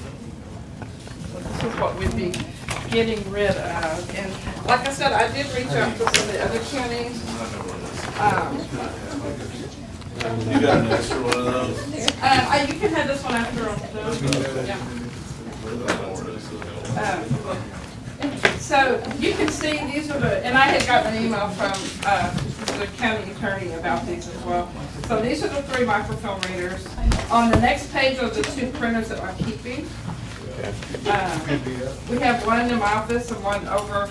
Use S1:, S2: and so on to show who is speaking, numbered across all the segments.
S1: So this is what we'd be getting rid of. And like I said, I did reach out to some of the other counties. Um,
S2: You got an extra one of those?
S1: Uh, I- you can have this one after all those, yeah. Um, So you can see, these are the, and I had gotten an email from, uh, the county attorney about these as well. So these are the three microfilm readers. On the next page are the two printers that I'm keeping. Um, We have one in my office and one over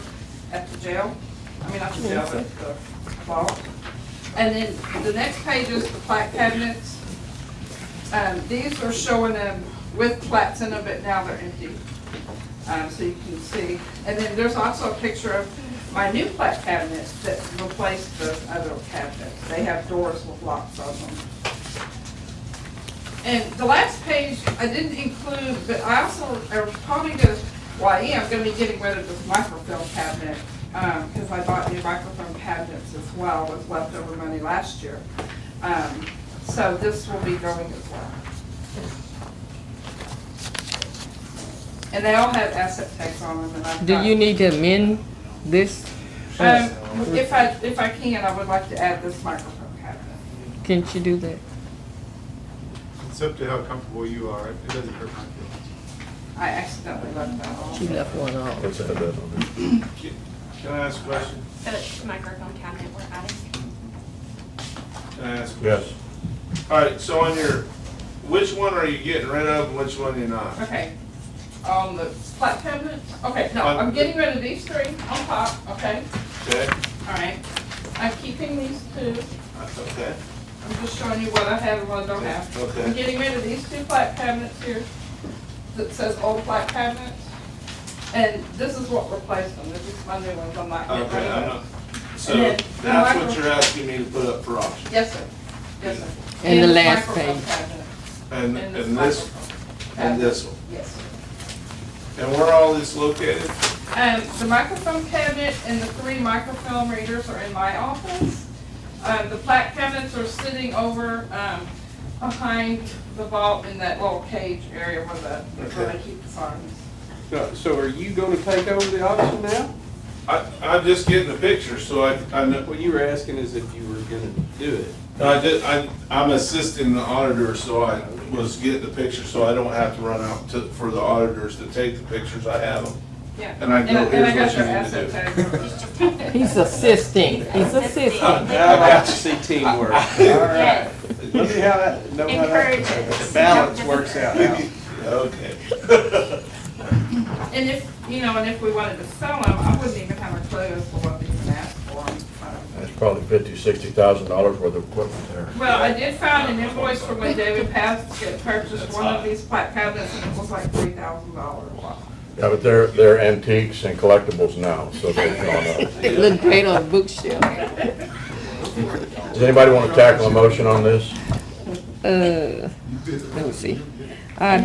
S1: at the jail. I mean, not the jail, but the vault. And then the next page is the plaque cabinets. Um, these are showing them with plats in them, but now they're empty. Um, so you can see. And then there's also a picture of my new plat cabinets that replaced the other cabinets. They have doors with locks on them. And the last page, I didn't include, but I also, I was probably gonna, well, I am gonna be getting rid of this microfilm cabinet, um, cause I bought new microfilm cabinets as well with leftover money last year. Um, so this will be going as well. And they all have asset tags on them and I've
S3: Do
S1: got-
S3: you need to amend this?
S1: Um, if I, if I can, I would like to add this microfilm cabinet.
S3: Can you do that?
S4: It's up to how comfortable you are. It doesn't hurt my feelings.
S1: I accidentally left that
S3: She
S1: on.
S3: left one off.
S5: Let's add that on there.
S2: Can I ask a question?
S6: The microphone cabinet we're adding.
S2: Can I ask a
S5: Yes.
S2: question? All right, so on your, which one are you getting rid of and which one you're not?
S1: Okay, on the flat cabinet, okay, no,
S2: Uh,
S1: I'm getting rid of these three on top, okay,
S2: Okay,
S1: alright. I'm keeping these two,
S2: that's okay.
S1: I'm just showing you what I have and what I don't have.
S2: Okay.
S1: I'm getting rid of these two flat cabinets here that says old flat cabinets. And this is what replaced them, this is my new ones, I'm not getting rid
S2: Okay, I'm not,
S1: of.
S2: so
S1: And then the
S2: that's what
S1: micro-
S2: you're asking me to put up for auction?
S1: Yes, sir, yes, sir.
S3: And the
S1: this
S3: last
S1: microfilm
S3: page.
S1: cabinet.
S2: And,
S1: this
S2: and this,
S1: microfilm
S2: and
S1: cabinet.
S2: this one?
S1: Yes, sir.
S2: And where all this located?
S1: Um, the microphone cabinet and the three microfilm readers are in my office. Um, the plaque cabinets are sitting over, um, behind the vault in that little cage area where the, where they keep the signs.
S7: No, So are you gonna take over the auction now?
S2: I, I'm just getting a picture, so I, I know,
S7: What you were asking is if you were gonna do it.
S2: I did, I, I'm assisting the auditor, so I was getting the picture, so I don't have to run out to, for the auditors to take the pictures, I have them.
S1: Yeah.
S2: And I go,
S1: and I
S2: "Here's
S1: got your
S2: what you need to
S1: asset tag.
S3: He's assisting. He's assisting.
S7: I like to see teamwork. Let
S6: Yes,
S7: me how that, know how
S6: encourage
S7: that
S6: it.
S7: balance works out now.
S2: Okay.
S1: And if, you know, and if we wanted to sell them, I wouldn't even have a clue as to what they even asked for. Um,
S5: That's probably fifty, sixty thousand dollars worth of equipment there.
S1: Well, I did find an invoice for when David Paskett purchased one of these plaque cabinets and it was like three thousand dollars.
S5: Yeah, but they're, they're antiques and collectibles now, so they've gone up.
S3: It looked great on a bookshelf.
S5: Does anybody want to tackle a motion on this?
S3: Uh, let me see.
S6: And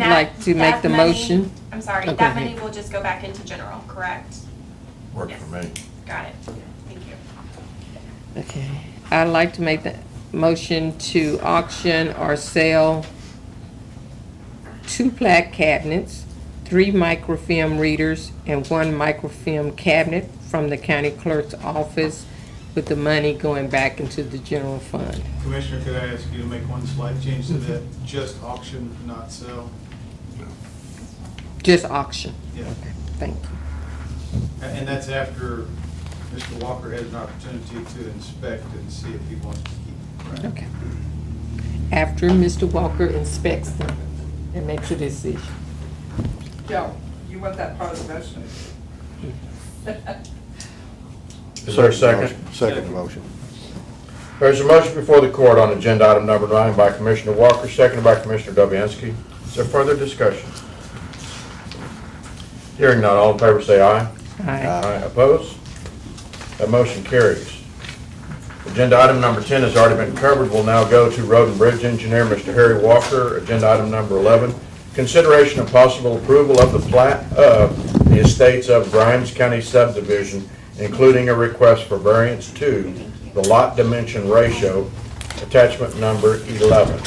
S3: I'd
S6: that-
S3: like to make
S6: that
S3: the
S6: money-
S3: motion.
S6: I'm sorry,
S3: Oh, go
S6: that
S3: ahead.
S6: money will just go back into general, correct?
S5: Works for me.
S6: Got it. Thank you.
S3: Okay. I'd like to make the motion to auction or sell two plaque cabinets, three microfilm readers, and one microfilm cabinet from the county clerk's office with the money going back into the general fund.
S4: Commissioner, could I ask you to make one slight change to that? Just auction, not sell.
S3: Just auction.
S4: Yeah.
S3: Thank you.
S4: A- And that's after Mr. Walker has an opportunity to inspect and see if he wants to keep it. right?
S3: Okay. After Mr. Walker inspects them and makes a decision.
S1: Joe, you want that part of the motion?
S5: Is there a second?
S8: Second motion.
S5: There's a motion before the court on agenda item number nine by Commissioner Walker, seconded by Commissioner Dobianski. Is there further discussion? Hearing none, all in favor say aye.
S3: Aye.
S5: Opposed? That motion carries. Agenda item number 10 has already been covered. We'll now go to Road and Bridge Engineer, Mr. Harry Walker. Agenda item number 11, consideration of possible approval of the plat of the estates of Grimes County subdivision, including a request for variance to the lot dimension ratio, attachment number 11.